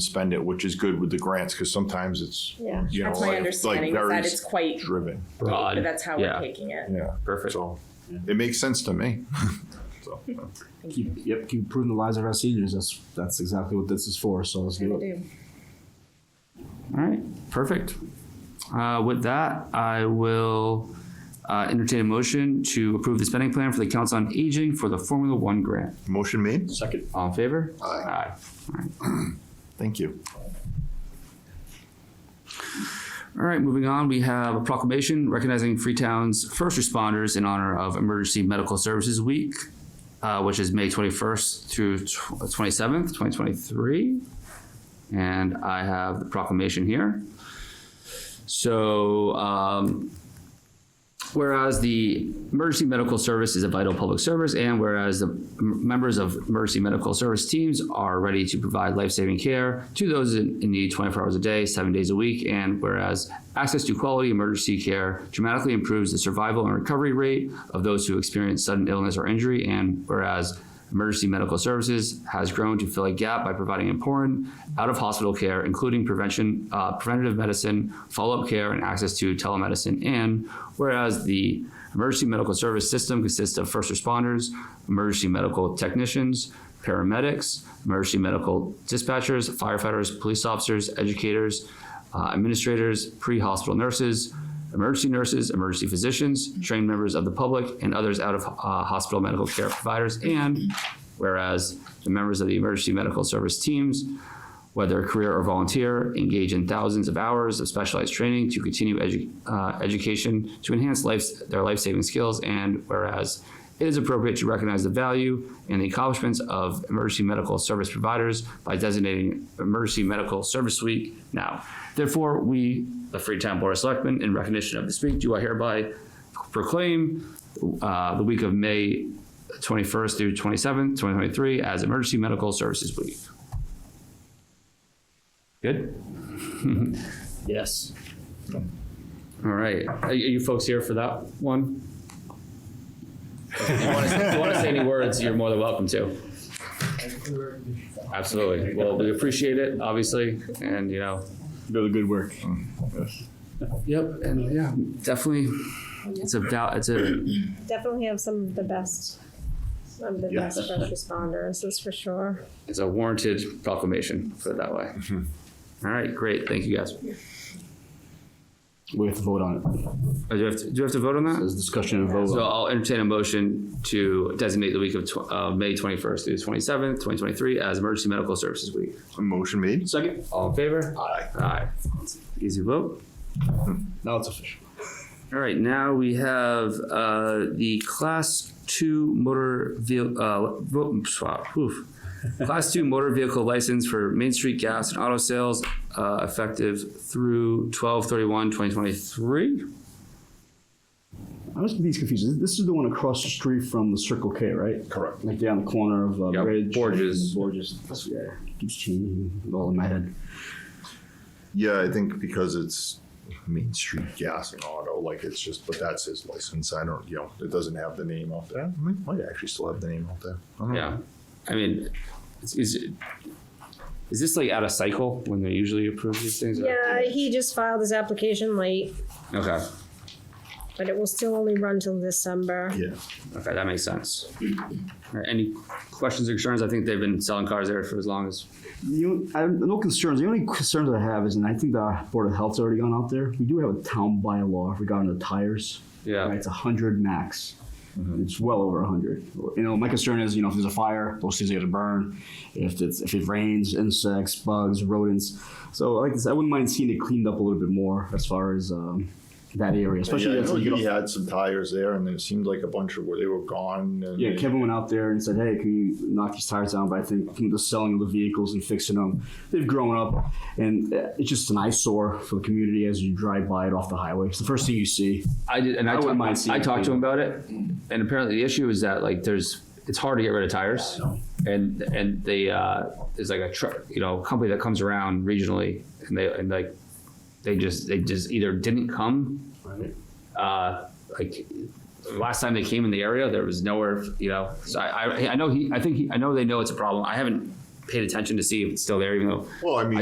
spend it, which is good with the grants, because sometimes it's, Yeah, you know, that's my like, like understanding, is very that it's quite, driven. but broad. that's how yeah. we're taking it. Yeah, Perfect. so it makes sense to me. So, uh, Keep, yep, keep improving the lives of our seniors. That's that's exactly what this is for. So let's do it. All right, perfect. Uh, with that, I will uh, entertain a motion to approve the spending plan for the Council on Aging for the Formula One grant. motion made? Second. All in favor? Aye. Thank you. All right, moving on, we have a proclamation recognizing Freetown's first responders in honor of Emergency Medical Services Week, uh, which is May 21st through tw- 27th, 2023. And I have the proclamation here. So, um, whereas the emergency medical service is a vital public service, and whereas the m- members of emergency medical service teams are ready to provide life-saving care to those in, in need 24 hours a day, seven days a week, and whereas access to quality emergency care dramatically improves the survival and recovery rate of those who experience sudden illness or injury, and whereas Emergency medical services has grown to fill a gap by providing important out of hospital care, including prevention, uh, preventative medicine, follow up care, and access to telemedicine. And whereas the emergency medical service system consists of first responders, emergency medical technicians, paramedics, emergency medical dispatchers, firefighters, police officers, educators, uh, administrators, pre hospital nurses, emergency nurses, emergency physicians, trained members of the public, and others out of uh, hospital medical care providers. And whereas the members of the emergency medical service teams, whether career or volunteer, engage in thousands of hours of specialized training to continue edu- uh, education to enhance life's, their life saving skills. And whereas it is appropriate to recognize the value and the accomplishments of emergency medical service providers by designating Emergency Medical Service Week now. Therefore, we, the Freetown Board of Selectmen, in recognition of this week, do I hereby proclaim uh, the week of May 21st through 27th, 2023 as Emergency Medical Services Week. Good? Yes. All right. Are you- are you folks here for that one? If you want to, say any words, you're more than welcome to. Absolutely. Well, we appreciate it, obviously, and you know. Really good work. Mm. Yep, and yeah, definitely. It's a doubt. It's a Definitely have some of the best, some of the Yes. best first responders, that's for sure. it's a warranted proclamation. Put it that way. All right, great. Thank you, guys. Uh, We have to vote on it. Oh, do, you have to, do you have to vote on that? There's discussion and vote. So I'll entertain a motion to designate the week of tw- uh, May 21st through 27th, 2023, as Emergency Medical Services Week. Motion made? Second. All in favor? Aye. Aye. Easy vote. now it's official. All right, now we have uh, the class two motor vehicle uh, vo- swap. oof. class two motor vehicle license for Main Street Gas and Auto Sales, uh, effective through 12/31/2023. I was confused. confused. This is the one across the street from the Circle K, right? Correct. Like down the corner of uh, Yeah, Bridge. Borges. Borges. That's, yeah, keeps changing. All in my head. Yeah, I think because it's Main Street Gas and Auto, like it's just, but that's his license. I don't, you know, it doesn't have the name out there. It might- Might actually still have the name out there. I don't know. Yeah, I mean, is, is it- is this like out of cycle when they usually approve these things? Yeah, he just filed his application late, Okay. but it will still only run till December. Yeah, Okay, that makes sense. All right, any questions or concerns? I think they've been selling cars there for as long as. You, I, no concerns. The only concerns I have is, and I think the Board of Health's already gone out there. We do have a town bylaw regarding the tires. Yeah. Right, it's a hundred max. Mm-hmm. It's well over a hundred. You know, my concern is, you know, if there's a fire, those things are gonna burn. If it's if it rains, insects, bugs, rodents. So like this, I wouldn't mind seeing it cleaned up a little bit more as far as um, that area, especially yeah, I as know you he get off- had some tires there and it seemed like a bunch of, where they were gone and. yeah, Kevin went out there and said, "Hey, can you knock these tires down?" But I think from the selling of the vehicles and fixing them, they've grown up, and uh, it's just an eyesore for the community as you drive by it off the highway. It's the first thing you see. I did, and I, I wouldn't talked, mind seeing I it talked to him about it, and apparently the issue is that like there's it's hard to get rid of tires, and and they uh, there's like a truck you know company that comes around regionally, and they and like they just they just either didn't come, Right. uh, like last time they came in the area there was nowhere you know so I I, I know he I think he, I know they know it's a problem I haven't paid attention to see if it's still there, even though Well, I mean,